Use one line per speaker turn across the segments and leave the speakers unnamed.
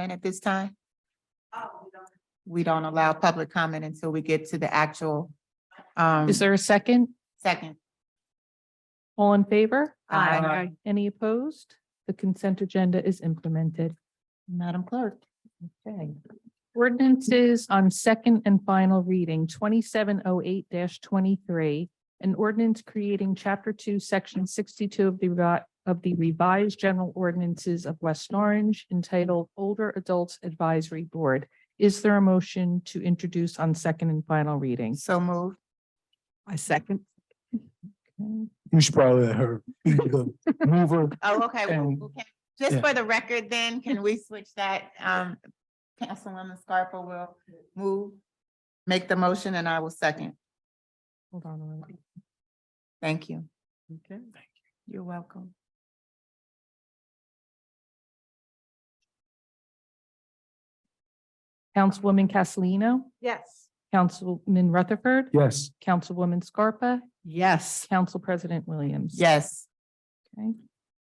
comment at this time? Oh, We don't allow public comment until we get to the actual, um,
Is there a second?
second.
All in favor?
Aye.
Any opposed? The consent agenda is implemented.
Madam Clerk.
Okay. Ordinances on second and final reading, twenty-seven oh eight twenty-three. An ordinance creating chapter two, section sixty-two of the revi- of the revised general ordinances of West Orange entitled Older Adults Advisory Board. Is there a motion to introduce on second and final reading?
So moved.
I second.
Okay.
You should probably let her be the mover.
Oh, okay. well,
And-
okay. Just
yeah.
for the record then, can we switch that? Um, Councilwoman Scarpa will move, make the motion and I will second.
Hold on. a minute.
Thank you.
Okay.
You're welcome.
Councilwoman Castellino,
Yes.
Councilman Rutherford,
Yes,
Councilwoman Scarpa,
Yes.
Council President Williams.
Yes.
Okay.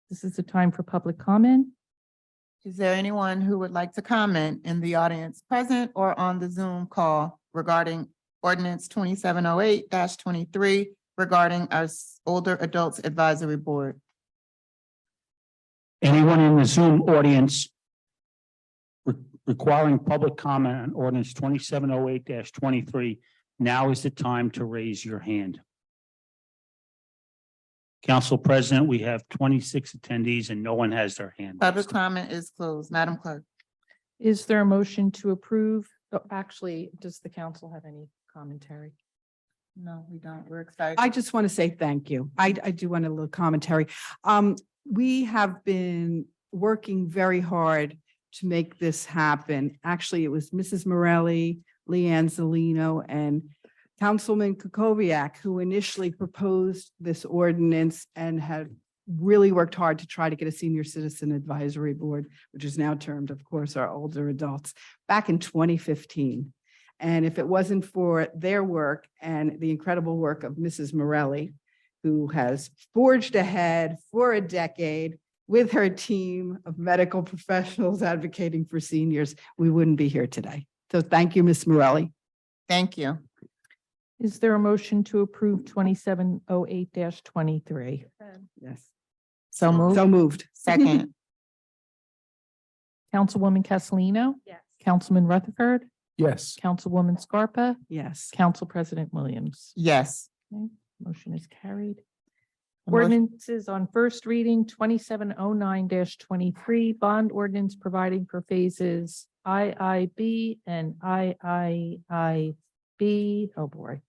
This is the time for public comment.
Is there anyone who would like to comment in the audience present or on the Zoom call regarding ordinance twenty-seven oh eight twenty-three regarding our s- older adults advisory board?
Anyone in the Zoom audience re- requiring public comment on ordinance twenty-seven oh eight twenty-three, now is the time to raise your hand. Council President, we have twenty-six attendees and no one has their hand.
Public comment is closed. Madam Clerk.
Is there a motion to approve? Oh, Actually, does the council have any commentary?
No, we don't. We're excited.
I just want to say thank you. I, I do want a little commentary. Um, we have been working very hard to make this happen. Actually, it was Mrs. Morelli, Leanne Zelino, and Councilman Kukoviac who initially proposed this ordinance and had really worked hard to try to get a senior citizen advisory board, which is now termed, of course, our older adults, back in twenty fifteen. And if it wasn't for their work and the incredible work of Mrs. Morelli, who has forged ahead for a decade with her team of medical professionals advocating for seniors, we wouldn't be here today. So thank you, Ms. Morelli.
Thank you.
Is there a motion to approve twenty-seven oh eight twenty-three?
Yes.
So moved.
So moved.
Second.
Councilwoman Castellino? Yes. Councilman Rutherford,
yes.
Councilwoman Scarpa,
Yes.
Council President Williams.
Yes.
Motion is carried.
A motion-
Ordinances on first reading, twenty-seven oh nine twenty-three, bond ordinance providing for phases IIB and IIIB. Oh, boy.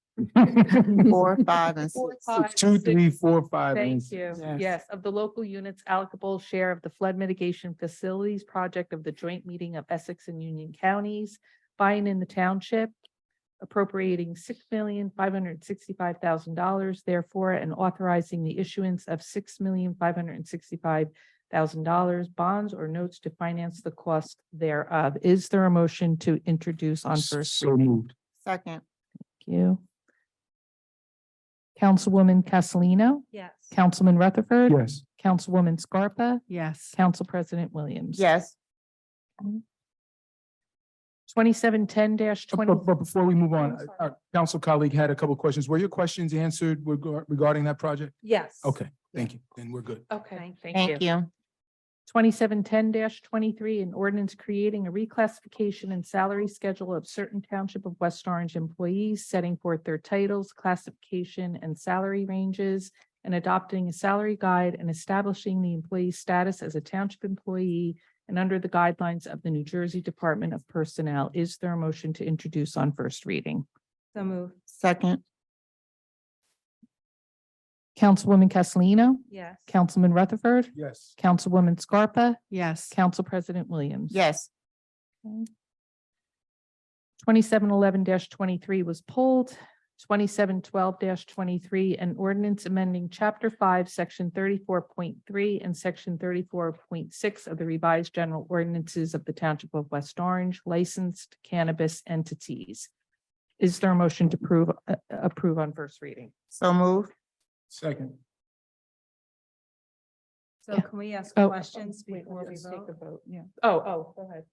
Four, five, and six.
Four, five,
Two,
six.
three, four, five. and-
Thank you.
Yes.
Yes, of the local units allocable share of the flood mitigation facilities project of the joint meeting of Essex and Union Counties, buying in the township, appropriating six million five hundred sixty-five thousand dollars therefore, and authorizing the issuance of six million five hundred sixty-five thousand dollars bonds or notes to finance the cost thereof. Is there a motion to introduce on first?
So moved,
Second.
Thank you. Councilwoman Castellino? Yes. Councilman Rutherford?
yes.
Councilwoman Scarpa,
Yes.
Council President Williams.
Yes.
Twenty-seven ten dash
But,
twenty,
but- but before we move on,
I'm sorry.
our council colleague had a couple questions. Were your questions answered reg- regarding that project?
yes.
Okay, thank you. Then we're good.
Okay,
Thank you.
Twenty-seven ten twenty-three, an ordinance creating a reclassification and salary schedule of certain Township of West Orange employees, setting forth their titles, classification, and salary ranges, and adopting a salary guide and establishing the employee's status as a Township employee and under the guidelines of the New Jersey Department of Personnel. Is there a motion to introduce on first reading?
So moved. Second.
Councilwoman Castellino?
Yes.
Councilman Rutherford,
Yes.
Councilwoman Scarpa,
Yes.
Council President Williams.
Yes.
Twenty-seven eleven twenty-three was pulled. Twenty-seven twelve twenty-three, an ordinance amending Chapter Five, Section thirty-four point three and Section thirty-four point six of the revised general ordinances of the Township of West Orange licensed cannabis entities. Is there a motion to prove, uh, approve on first reading?
So moved.
Second.
So
Yeah.
can we ask
Oh,
questions before we vote?
Oh, oh, go ahead.